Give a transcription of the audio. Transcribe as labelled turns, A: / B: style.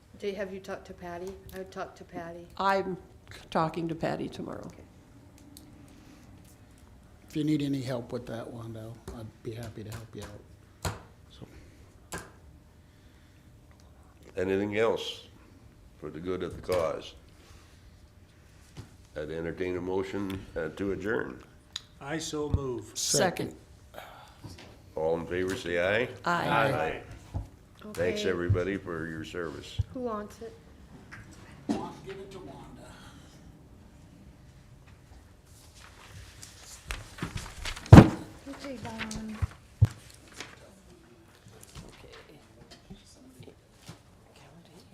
A: Do, have you talked to Patty? I would talk to Patty.
B: I'm talking to Patty tomorrow.
C: If you need any help with that, Wando, I'd be happy to help you out. So,
D: Anything else for the good of the cause? I'd entertain a motion uh, to adjourn.
E: I so move.
B: Second.
D: All in favor, say aye.
B: Aye.
E: Aye.
D: Thanks,
A: Okay.
D: everybody, for your service.
A: Who wants it?
C: Give it to Wanda.
F: Okay, Don.